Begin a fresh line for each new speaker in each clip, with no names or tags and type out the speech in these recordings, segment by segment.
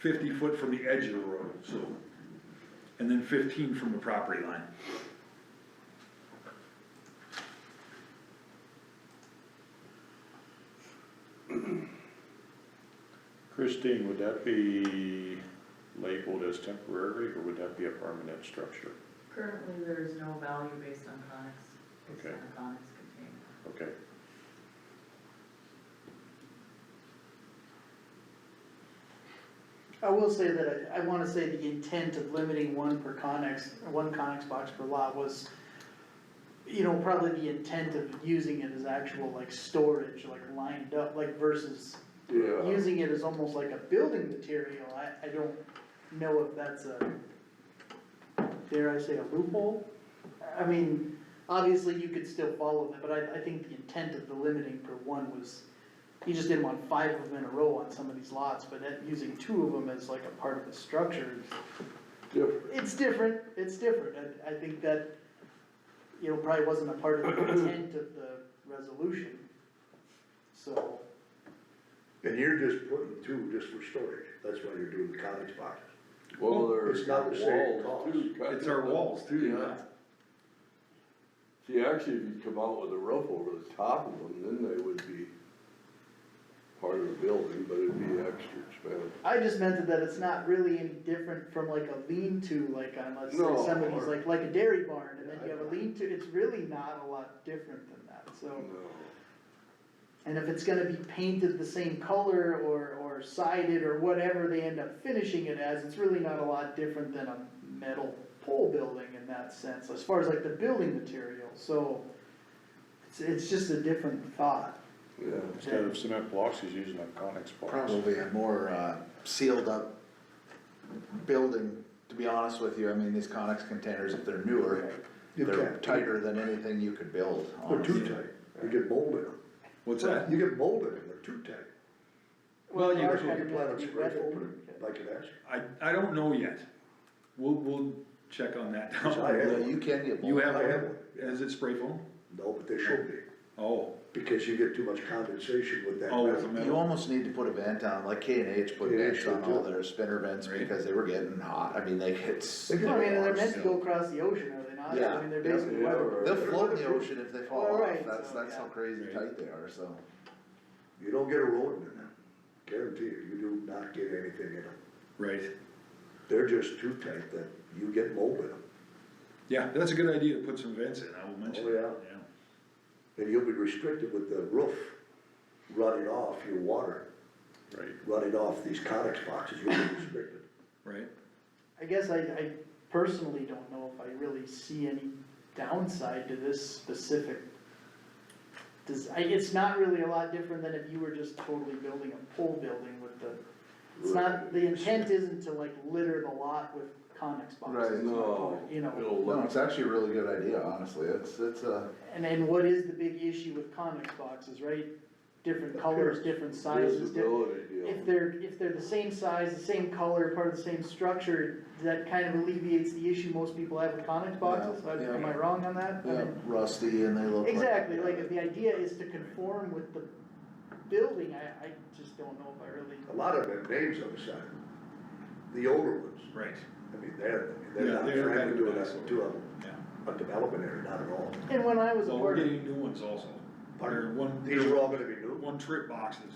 fifty foot from the edge of the road, so, and then fifteen from the property line.
Christine, would that be labeled as temporary, or would that be a permanent structure?
Currently, there is no value based on conics, based
Okay.
on the conics contained.
Okay.
I will say that I, I wanna say the intent of limiting one per connex, one connex box per lot was, you know, probably the intent of using it as actual like storage, like lined up, like versus
Yeah,
using it as almost like a building material, I, I don't know if that's a, dare I say, a loophole? I mean, obviously you could still follow that, but I, I think the intent of the limiting per one was, you just didn't want five of them in a row on some of these lots, but that, using two of them as like a part of the structure,
different,
it's different, it's different, and I think that, you know, probably wasn't a part of the intent of the resolution, so.
And you're just putting two just for storage, that's why you're doing the cottage boxes.
well, there's
It's not the same
walls
cost.
too. kind
It's our
of.
walls too,
Yeah.
yeah.
See, actually, if you come out with a roof over the top of them, then they would be part of the building, but it'd be extra expensive.
I just meant that it's not really any different from like a lean-to, like on, let's
No,
say somebody's
or-
like, like a dairy barn, and then
Yeah,
you
I
have a
know.
lean-to, it's really not a lot different than that, so.
No,
And if it's gonna be painted the same color or, or sided or whatever they end up finishing it as, it's really not a lot different than a metal pole building in that sense, as far as like the building material, so. It's, it's just a different thought.
yeah,
Instead of cement blocks, he's using a conex box.
probably a more uh, sealed up building, to be honest with you. I mean, these Conex containers, if they're newer,
You
they're
can't-
tighter than anything you could build,
They're too
honestly.
tight, you get mold in them.
What's that?
You get mold in them, they're too tight.
Well, you-
Our
That's what you
kind of
plan
has
on
to be
scratch
weathered.
opening, like an ask.
I, I don't know yet. We'll, we'll check on that down.
I
Yeah,
have,
you
one.
can get
You
mold.
have,
I have
one?
one.
is it spray foam?
no, but they should be,
Oh,
because you get too much condensation with that.
oh, it's a
metal.
You
metal.
almost need to put a vent on, like K and H put
K&H
vents on
did too.
all their spinner vents
Right.
because they were getting hot. I mean, they get.
They get
I mean, they're
so
meant to go across the ocean, are they not?
Yeah.
I mean, they're
Yeah,
basically
they are,
weatherproof.
right.
They'll float in the ocean if they fall off.
Right,
That's,
so,
that's how
yeah.
crazy
Right.
tight they are, so.
You don't get a rodent in them, guarantee you, you do not get anything in them.
Right,
They're just too tight that you get mold in them,
yeah, that's a good idea to put some vents in, I will mention.
Oh,
it.
yeah. and you'll be restricted with the roof running off your water,
Right.
running off these conex boxes, you'll be restricted.
Right,
I guess I, I personally don't know if I really see any downside to this specific. Does, I, it's not really a lot different than if you were just totally building a pole building with the, it's not, the intent isn't to like litter the lot with conex boxes.
Right,
no,
You know,
it'll
No,
look,
it's actually a really good idea, honestly. It's, it's uh, a.
and then what is the big issue with conex boxes, right? Different colors, different sizes, different.
visibility
If
deal.
they're, if they're the same size, the same color, part of the same structure, that kind of alleviates the issue most people have with Conex boxes,
Yeah, yeah.
am I wrong on that? I
Yeah,
mean,
rusty and they look like.
Exactly, like, if the idea is to conform with the building, I, I just don't know if I really,
A lot of them have names on the side, the older ones,
right,
I mean, they're, I mean,
Yeah,
they're not
they're
trying
kind
to
of
do it
dinosaur.
on- to
yeah.
a, a development area, not at all.
and when I was a
Well, we're
part of,
getting new ones also.
Pardon?
They're one,
These
they're
are all gonna be new,
one trip boxes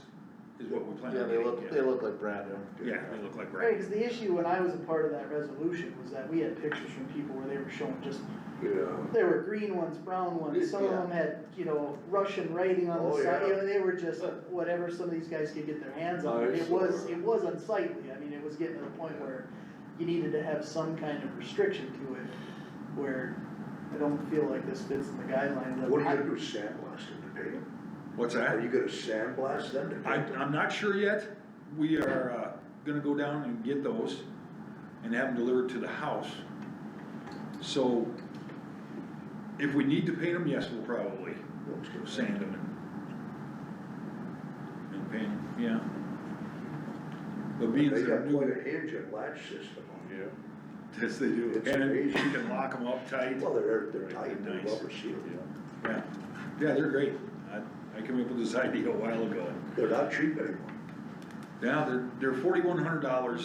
is what we plan
Yeah,
on
they
getting.
look, they look like brand new.
Yeah, they look like
right,
right.
cause the issue when I was a part of that resolution was that we had pictures from people where they were showing just,
Yeah,
there were green ones, brown ones, some of
Yeah.
them had, you know, Russian writing on
Oh,
the side, you
yeah.
know, they were just whatever some of these guys could get their hands on.
I
And It
saw
was,
that.
it was unsightly, I mean, it was getting to the point where you needed to have some kind of restriction to it, where I don't feel like this fits in the guidelines. of-
what are you gonna do, sandblast them to paint them?
What's
Are
that?
you gonna sandblast them to paint
I,
them?
I'm not sure yet. We are, uh, gonna go down and get those and have them delivered to the house. So if we need to paint them, yes, we'll probably
I was gonna say,
sand them and, and paint them, yeah. But being
They
they're
got quite
new,
a hinge and latch system on it.
Yeah,
yes, they do.
It's
And you
amazing.
can lock them up tight.
Well, they're, they're tight, they're
Nice.
rubber sealed,
yeah.
Yeah, yeah, they're great. I, I came up with this idea a while ago.
they're not cheap anymore.
Yeah, they're, they're forty-one hundred dollars